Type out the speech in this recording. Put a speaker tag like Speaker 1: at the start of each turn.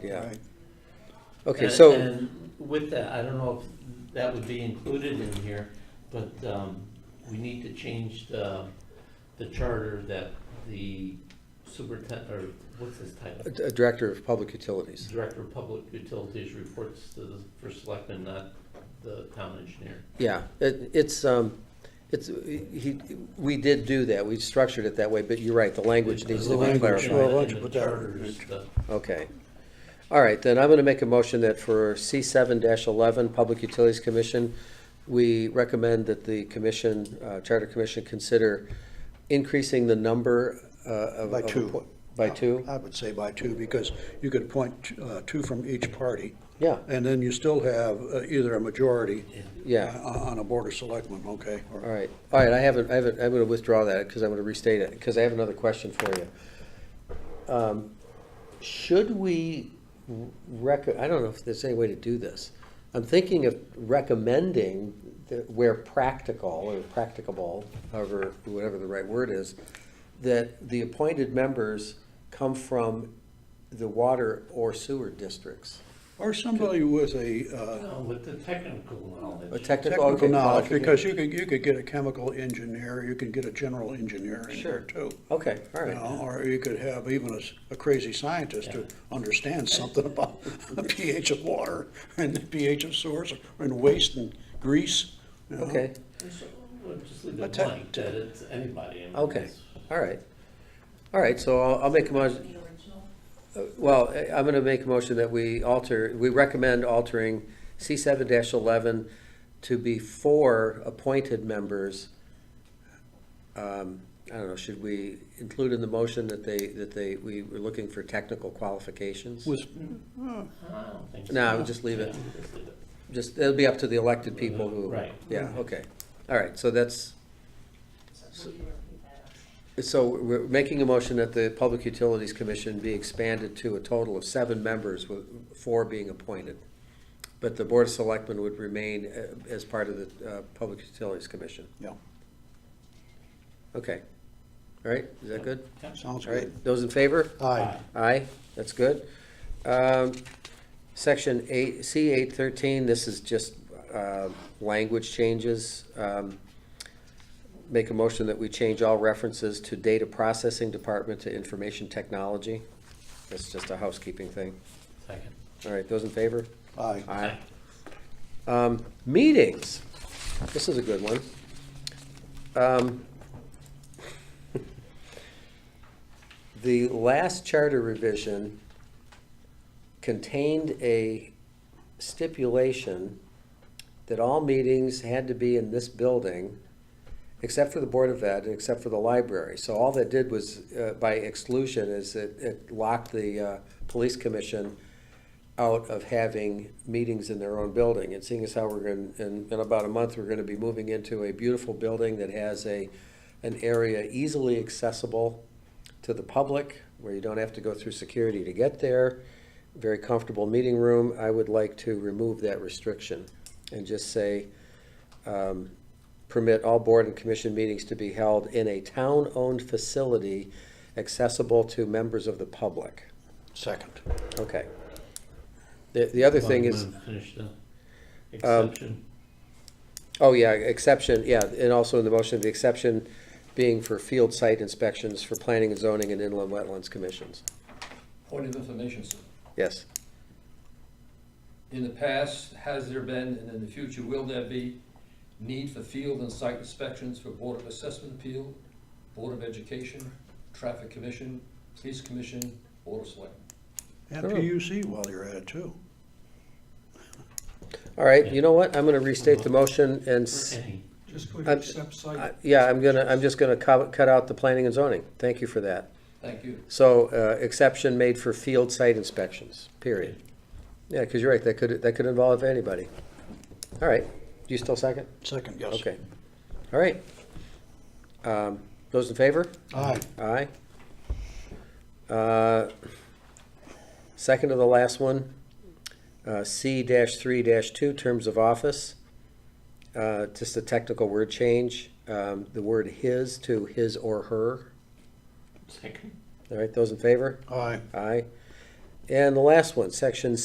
Speaker 1: Yeah.
Speaker 2: Right.
Speaker 1: Okay,
Speaker 3: And-
Speaker 1: so,
Speaker 3: and With that, I don't know if that would be included in here, but um, we need to change the, the charter that the superintendent, or what's his title?
Speaker 1: uh, Director of Public Utilities.
Speaker 3: Director of Public Utilities reports to the first selectman, not the town engineer.
Speaker 1: Yeah, it, it's, um, it's, he, we did do that. We structured it that way, but you're right, the language needs to
Speaker 2: The
Speaker 1: be
Speaker 2: language,
Speaker 1: clarified.
Speaker 2: well, why don't you
Speaker 3: In the
Speaker 2: put that
Speaker 3: charter
Speaker 2: in?
Speaker 3: is the-
Speaker 1: Okay. All right, then I'm going to make a motion that for C7-11, Public Utilities Commission, we recommend that the commission, uh, Charter Commission, consider increasing the number uh, of.
Speaker 2: By
Speaker 1: of
Speaker 2: two. Uh,
Speaker 1: appo- By two?
Speaker 2: I would say by two, because you could appoint uh, two from each party,
Speaker 1: Yeah,
Speaker 2: and then you still have uh, either a majority uh,
Speaker 1: yeah.
Speaker 2: on on a board of selectmen, okay? or-
Speaker 1: All right, all right, I haven't, I haven't, I'm gonna withdraw that, because I'm gonna restate it, because I have another question for you. Um, Should we rec, I don't know if there's any way to do this. I'm thinking of recommending, that where practical, or practicable, however, whatever the right word is, that the appointed members come from the water or sewer districts.
Speaker 2: Or somebody with a uh,
Speaker 3: No, with the technical
Speaker 1: A
Speaker 3: knowledge.
Speaker 1: technical. okay,
Speaker 2: technical knowledge,
Speaker 1: qualification.
Speaker 2: because you could, you could get a chemical engineer, you could get a general engineer in
Speaker 1: Sure.
Speaker 2: there too.
Speaker 1: Okay, all
Speaker 2: you
Speaker 1: right.
Speaker 2: know, Or you could have even a s- a crazy scientist who understands something about the pH of water and the pH of source and waste and grease, you know.
Speaker 1: Okay,
Speaker 3: We'll Just leave it
Speaker 2: te-
Speaker 3: blank, that it's anybody. I mean,
Speaker 1: Okay.
Speaker 3: it's-
Speaker 1: all right. All right, so I'll, I'll make a motion.
Speaker 4: The original.
Speaker 1: Uh, Well, I- I'm going to make a motion that we alter, we recommend altering C seven eleven to be four appointed members. Um, I don't know, should we include in the motion that they, that they, we were looking for technical qualifications?
Speaker 2: With,
Speaker 3: I don't think so.
Speaker 1: No, I would just leave it.
Speaker 3: Yeah, just leave it.
Speaker 1: Just, it'll be up to the elected people who.
Speaker 3: Right.
Speaker 1: Yeah, okay. All right, so that's,
Speaker 4: So will you repeat that?
Speaker 1: so we're making a motion that the Public Utilities Commission be expanded to a total of seven members, with four being appointed. But the Board of Selectmen would remain uh, as part of the uh, Public Utilities Commission.
Speaker 2: yeah,
Speaker 1: Okay. All right, is that good?
Speaker 3: Yeah.
Speaker 2: sounds
Speaker 1: All
Speaker 2: good.
Speaker 1: right, those in favor?
Speaker 2: Aye.
Speaker 1: Aye, that's good. Um, Section eight, C eight thirteen, this is just uh, language changes. Um, Make a motion that we change all references to data processing department to information technology. That's just a housekeeping thing.
Speaker 3: Second.
Speaker 1: All right, those in favor?
Speaker 2: Aye.
Speaker 1: Aye. Um, Meetings, this is a good one. Um, The last charter revision contained a stipulation that all meetings had to be in this building, except for the Board of Ed, and except for the library. So all that did was, uh, by exclusion, is it it locked the uh, police commission out of having meetings in their own building. And seeing as how we're going, in, in about a month, we're going to be moving into a beautiful building that has a, an area easily accessible to the public, where you don't have to go through security to get there, very comfortable meeting room. I would like to remove that restriction and just say, um, permit all board and commission meetings to be held in a town-owned facility accessible to members of the public.
Speaker 2: Second.
Speaker 1: Okay. The, the other thing is, um,
Speaker 3: Wanna Finish the exception.
Speaker 1: oh yeah, exception, yeah, and also in the motion, the exception being for field site inspections for planning and zoning and inland wetlands commissions.
Speaker 5: Point of information, sir.
Speaker 1: Yes,
Speaker 5: In the past, has there been, and in the future, will there be need for field and site inspections for Board of Assessment Appeal, Board of Education, Traffic Commission, Police Commission, Board of Selectmen?
Speaker 2: And PUC while you're at it too.
Speaker 1: all right, you know what, I'm gonna restate the motion and, s-
Speaker 3: Any.
Speaker 6: Just put
Speaker 1: I'm-
Speaker 6: accept
Speaker 1: I-
Speaker 6: site.
Speaker 1: yeah, I'm gonna, I'm just gonna co- cut out the planning and zoning, thank you for that.
Speaker 5: Thank you.
Speaker 1: So, uh, exception made for field site inspections, period. Yeah, because you're right, that could, that could involve anybody. All right, do you still second?
Speaker 2: Second, yes.
Speaker 1: Okay, all right. Um, Those in favor?
Speaker 2: Aye.
Speaker 1: Aye. Uh, Second to the last one, uh, C dash three dash two, terms of office. Uh, Just a technical word change, um, the word his to his or her.
Speaker 3: Second.
Speaker 1: All right, those in favor?
Speaker 2: Aye.
Speaker 1: Aye. And the last one, section